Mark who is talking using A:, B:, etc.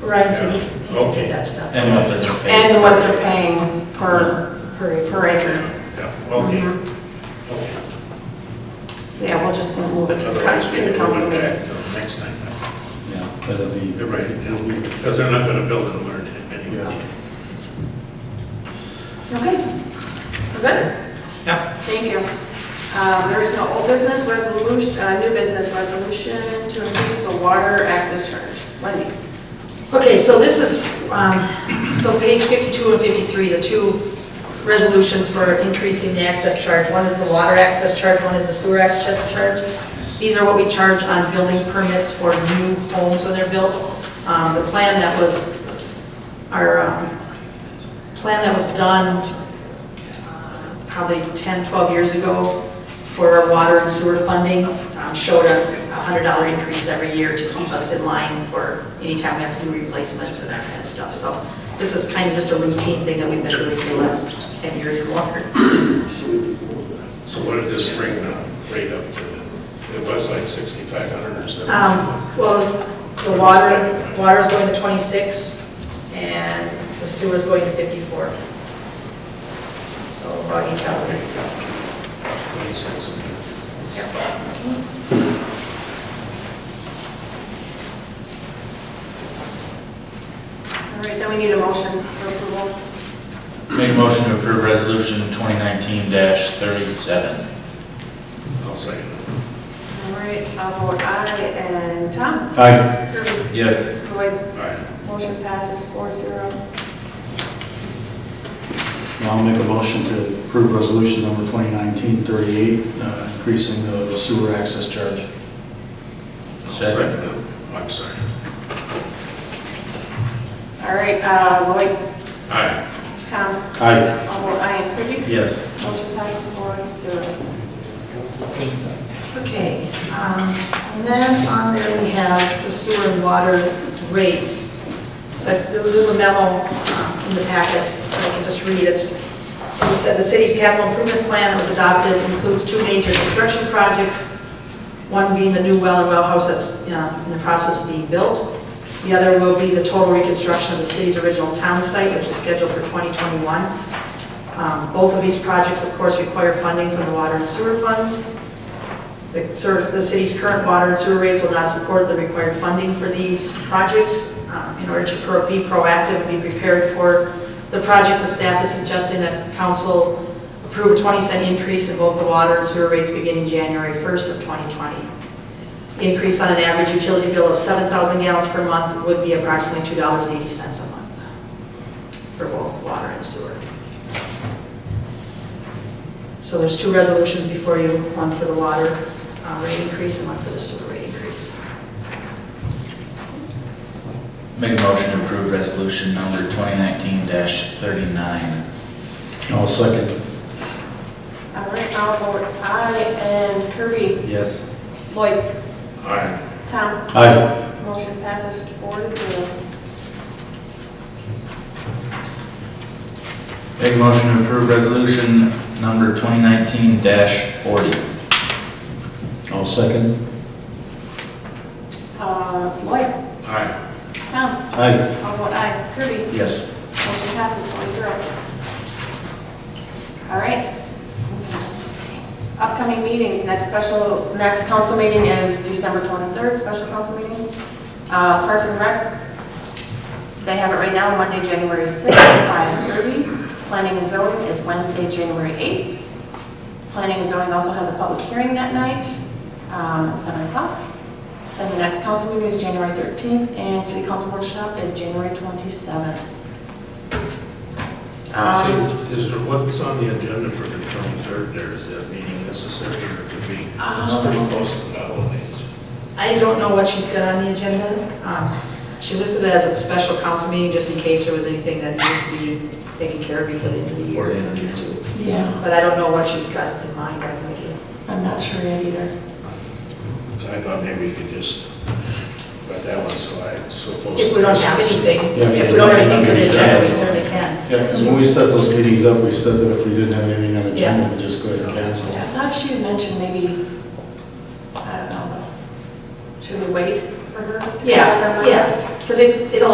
A: Right, so he he can
B: Okay.
A: do that stuff.
C: And what they're paying.
D: And what they're paying per, per per acre.
B: Yeah, okay,
D: Mhm.
B: okay.
D: So yeah, we'll just move it to the
B: Otherwise,
D: coun-
B: we
D: to the
B: can
D: council
B: move it
D: meeting.
B: back till next time.
C: Yeah, but it'll be,
B: You're right, it'll be, because they're not gonna build in the winter time anyway.
C: Yeah.
D: Okay, we're good?
C: yeah,
D: Thank you. Um, There is no old business resolution, uh, new business resolution to increase the water access charge. Wendy?
A: Okay, so this is, um, so page 52 and 53, the two resolutions for increasing the access charge. One is the water access charge, one is the sewer access charge. These are what we charge on building permits for new homes when they're built. Um, The plan that was, our um, plan that was done uh, probably 10, 12 years ago for our water and sewer funding um, showed a $100 increase every year to keep us in line for anytime we have to do replacements and that kind of stuff. So this is kind of just a routine thing that we've been doing for the last 10 years or longer.
B: So what did this bring the rate up to? It was like sixty-five hundred or
D: Ah.
B: something.
A: Um, Well, the water, water's going to 26 and the sewer's going to 54. So about 8,000.
B: Twenty-six.
D: All right, then we need a motion for approval.
C: make a motion to approve resolution 2019-37.
B: I'll second it.
D: All right, I'll vote aye, and Tom?
C: Aye.
D: Kirby?
C: Yes.
D: Lloyd?
B: All right,
D: Motion passes four zero.
E: I'll make a motion to approve resolution number 2019-38, uh, increasing the sewer access charge.
B: I'll
C: Second.
B: second it. I'm sorry.
D: All right, uh, Lloyd?
B: All right,
D: Tom?
E: Aye.
D: I'll vote aye, and Kirby?
C: Yes.
D: Motion passes four zero.
A: Okay, um, and then on there we have the sewer and water rates. So there's a memo um, in the packets, I can just read it. It said, "The city's capital improvement plan that was adopted includes two major construction projects, one being the new well and well house that's uh, in the process of being built. The other will be the total reconstruction of the city's original town site, which is scheduled for 2021. Um, Both of these projects, of course, require funding from the water and sewer funds. The cer- the city's current water and sewer rates will not support the required funding for these projects. Um, In order to pro- be proactive and be prepared for the projects, the staff is suggesting that the council approve a 20 cent increase in both the water and sewer rates beginning January 1st of 2020. The Increase on an average utility bill of 7,000 gallons per month would be approximately $2.80 a month for both water and sewer. So there's two resolutions before you, one for the water uh, rate increase and one for the sewer rate increase.
C: Make a motion to approve resolution number 2019-39.
E: I'll second.
D: All right, I'll vote aye, and Kirby?
C: Yes.
D: Lloyd?
B: all right,
D: Tom?
E: Aye.
D: Motion passes four to zero.
C: Make a motion to approve resolution number 2019-40.
E: I'll second.
D: Uh, Lloyd?
B: all right.
D: Tom?
E: Aye.
D: I'll vote aye. Kirby?
C: Yes.
D: Motion passes four to zero. All right. Upcoming meetings, next special, next council meeting is December 23rd, special council meeting. Uh, Park and Rec, they have it right now, Monday, January 6th, 5:30. Planning and zoning is Wednesday, January 8th. Planning and zoning also has a public hearing that night, um, at 7 o'clock. Then the next council meeting is January 13th, and city council workshop is January 27th.
B: See,
D: Um,
B: Ah, Is there, what's on the agenda for the twenty-third there? Is that meeting necessary or could be,
D: Um,
B: it's pretty close to the holidays.
A: I don't know what she's got on the agenda. Um, She listed it as a special council meeting, just in case there was anything that needed to be taken care of before the end of the year.
C: Before the end of the year.
D: Yeah,
A: But I don't know what she's got in mind, I have no idea.
D: I'm not sure yet either.
B: I thought maybe we could just, but that one's so I, so close.
A: If we don't have anything,
E: Yeah,
A: if we don't have anything for the agenda, we
E: yeah.
A: certainly can.
E: Yeah, because when we set those meetings up, we said that if we didn't have anything on the
A: Yeah.
E: agenda, we'd just go ahead and cancel.
D: I thought she had mentioned maybe, I don't know, should we wait for her? to-
A: Yeah, yeah, because it, it'll